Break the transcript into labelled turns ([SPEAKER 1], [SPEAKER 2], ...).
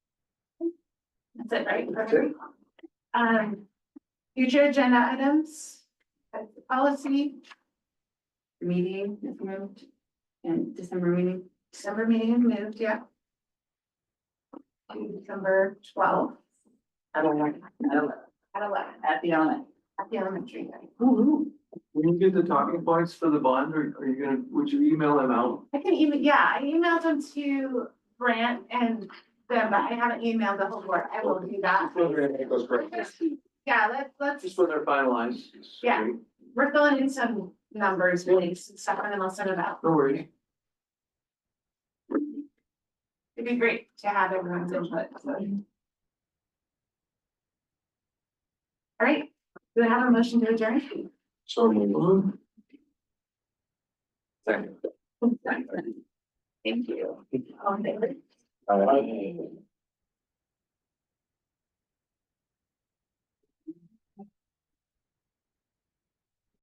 [SPEAKER 1] That's it, right?
[SPEAKER 2] That's it.
[SPEAKER 1] Um, future agenda items, that's the policy,
[SPEAKER 3] meeting is moved. And December meeting,
[SPEAKER 1] December meeting is moved, yeah. To December twelfth
[SPEAKER 3] I don't know, I don't know,
[SPEAKER 1] at eleven
[SPEAKER 3] at the on
[SPEAKER 1] at the elementary.
[SPEAKER 2] When you get the talking points for the bond, are are you gonna, would you email them out?
[SPEAKER 1] I can even, yeah, I emailed them to Brant and them, but I haven't emailed the whole board. I will do that.
[SPEAKER 2] Those
[SPEAKER 1] Yeah, let's, let's,
[SPEAKER 2] Just when they're finalized.
[SPEAKER 1] Yeah. we're filling in some numbers, really, some stuff, and then I'll send it out.
[SPEAKER 2] No worries.
[SPEAKER 1] It'd be great to have everyone's input. so. All right, do I have a motion to adjourn?
[SPEAKER 2] So move.
[SPEAKER 3] Thank you.
[SPEAKER 1] All in favor?
[SPEAKER 2] Second.